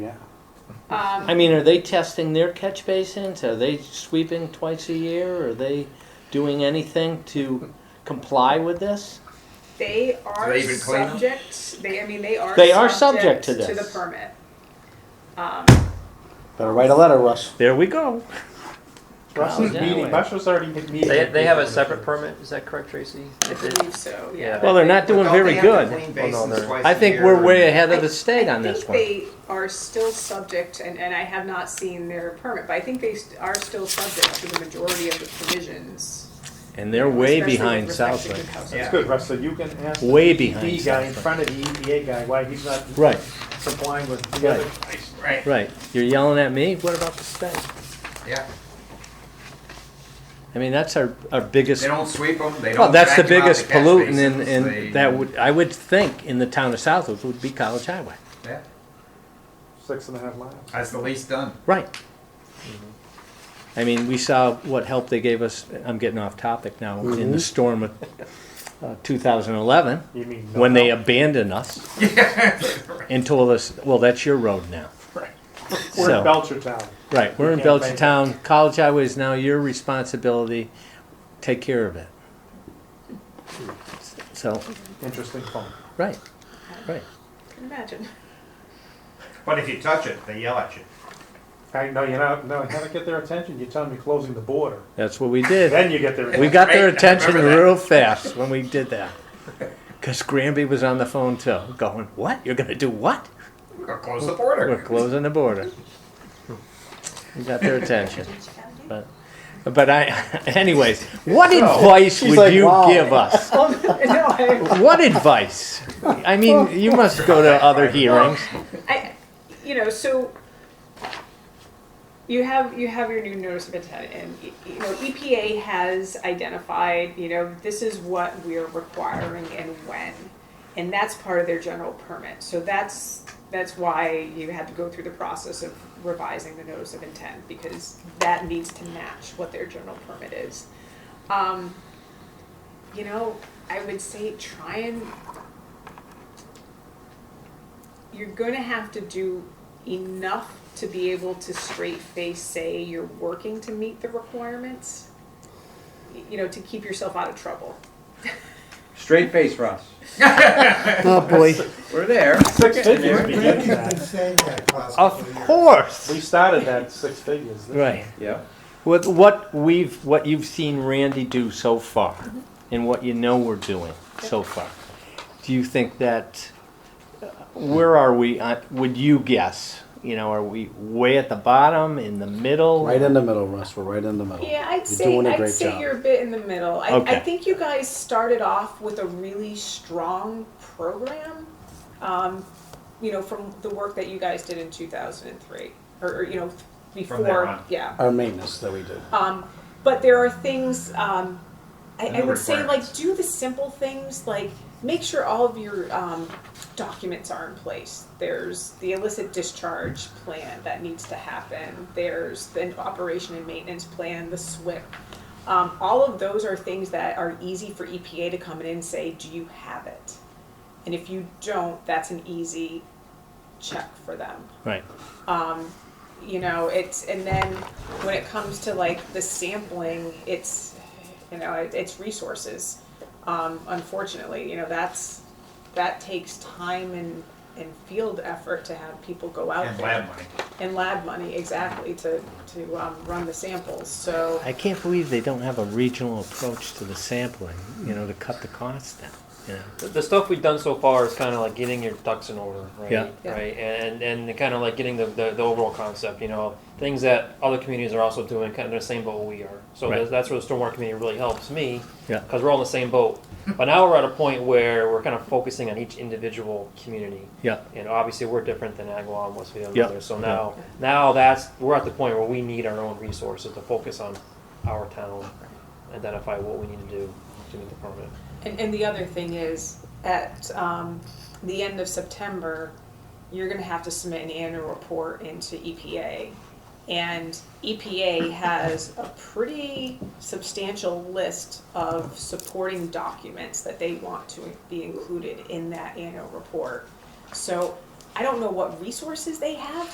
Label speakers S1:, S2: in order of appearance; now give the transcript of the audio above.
S1: Yeah.
S2: Um,
S3: I mean, are they testing their catch basins? Are they sweeping twice a year? Are they doing anything to comply with this?
S2: they
S4: Do
S2: are
S4: they even clean 'em?
S2: subject, they, I mean, they are.
S3: They are subject to
S2: To the
S3: this.
S2: permit. Um,
S1: Better write a letter, Russ.
S3: There we go.
S5: Russ is
S3: Golly.
S5: meeting, Russ was already meeting.
S4: They, they have a separate permit, is that correct, Tracy?
S2: I believe so, yeah.
S3: Well, they're not doing
S4: Don't they
S3: very good.
S4: have to clean
S5: Well, Oh, no,
S4: basins
S5: they're-
S4: twice
S3: I
S4: a
S3: think
S4: year?
S3: we're way ahead of the state
S2: I
S3: on this
S2: think
S3: one.
S2: they are still subject, and, and I have not seen their permit, but I think they st- are still subject to the majority of the provisions.
S3: And they're way
S2: especially
S3: behind
S2: with respect to
S3: Southwick.
S2: good housing.
S5: That's good, Russ, so you can ask the
S3: Way behind
S5: guy in
S3: Southwick.
S5: front of the EPA guy why he's not
S3: Right,
S5: complying with the other guys. Right.
S3: right. You're yelling at me? What about the state?
S4: Yeah,
S3: I mean, that's our, our biggest
S4: they don't sweep them, they don't.
S3: Well, that's the
S4: vacuum out
S3: biggest
S4: catch
S3: pollutant in,
S4: basins, they-
S3: in, that would, I would think in the town of Southwood would be College Highway.
S4: Yeah,
S5: Six and a half miles.
S4: That's the least done.
S3: Right. Mm-hmm. I mean, we saw what help they gave us, I'm getting off topic now, in the storm of uh, 2011,
S5: You mean? no
S3: when they
S5: help?
S3: abandoned us and told us, well, that's your road now.
S5: We're in
S3: so-
S5: Belchertown.
S3: Right, we're in
S5: You can't blame
S3: Belchertown, College Highway is now your responsibility, take care of it. So,
S5: Interesting phone.
S3: right, right.
S2: Can imagine.
S6: But if you touch it, they yell at you.
S5: I know, you know, no, you gotta get their attention, you tell them you're closing the border,
S3: That's what we did.
S5: then you get their.
S3: We got their
S4: Right, I
S3: attention
S4: remember that.
S3: real fast when we did that. Because Granby was on the phone too, going, What? You're going to do what?
S4: We're gonna close the
S3: We're
S4: border.
S3: closing the border. We got their attention. But, but I, anyways, what advice
S1: she's
S3: would
S1: like,
S3: you
S1: "Wow."
S3: give us?
S2: No, I,
S3: What advice? I mean, you must go to other hearings.
S2: I, you know, so you have, you have your new notice of intent and, y- you know, EPA has identified, you know, this is what we're requiring and when. And that's part of their general permit. So that's, that's why you had to go through the process of revising the notice of intent because that needs to match what their general permit is. Um, you know, I would say try and you're going to have to do enough to be able to straight face say you're working to meet the requirements y- you know to keep yourself out of trouble
S7: Straight face, Russ.
S3: Oh, boy.
S7: We're there.
S5: Six figures we did
S8: Been
S5: that.
S8: saying that across the
S3: Of
S8: three years.
S5: We
S3: course.
S5: started that six figures.
S3: Right.
S7: Yeah.
S3: With what we've, what you've seen Randy do so far, and what you know we're doing so far, do you think that, uh, where are we, on- would you guess? You know, are we way at the bottom, in the middle?
S1: Right in the middle, Russ. We're right in the middle.
S2: yeah i'd
S1: You're
S2: say
S1: doing a
S2: i'd
S1: great
S2: say
S1: job.
S2: you're a bit in the middle I, I
S3: Okay.
S2: think you guys started off with a really strong program um, you know from the work that you guys did in 2003 or, or you know before
S6: From there on.
S2: yeah
S1: Our maintenance that we do.
S2: Um, but there are things um, I, I
S4: Minimum
S2: would say, like
S4: requirements.
S2: do the simple things, like make sure all of your um, documents are in place. There's the illicit discharge plan that needs to happen. There's the operation and maintenance plan, the SWIP. Um, all of those are things that are easy for EPA to come in and say, do you have it? And if you don't, that's an easy check for them
S3: Right.
S2: um, you know it's and then when it comes to like the sampling it's you know it, it's resources um, unfortunately you know that's that takes time and and field effort to have people go out
S6: And
S2: there
S6: lab money.
S2: and lab money exactly to to um, run the samples so
S3: I can't believe they don't have a regional approach to the sampling, you know, to cut the costs down, you know?
S9: The- the stuff we've done so far is kind of like getting your ducks in order, right?
S3: Yeah.
S2: Yeah.
S9: Right, and and kind of like getting the, the, the overall concept, you know, things that other communities are also doing, kind of the same boat we are. So
S3: Right.
S9: that's- that's where the stormwater community really helps me,
S3: Yeah.
S9: because we're all in the same boat. But now we're at a point where we're kind of focusing on each individual community,
S3: Yeah,
S9: and obviously we're different than Agawam, Westfield,
S3: Yeah.
S9: and others. So now now that's we're at the point where we need our own resources to focus on our town, identify what we need to do to meet the permit.
S2: and, and the other thing is at um, the end of September you're going to have to submit an annual report into EPA. And EPA has a pretty substantial list of supporting documents that they want to be included in that annual report. So I don't know what resources they have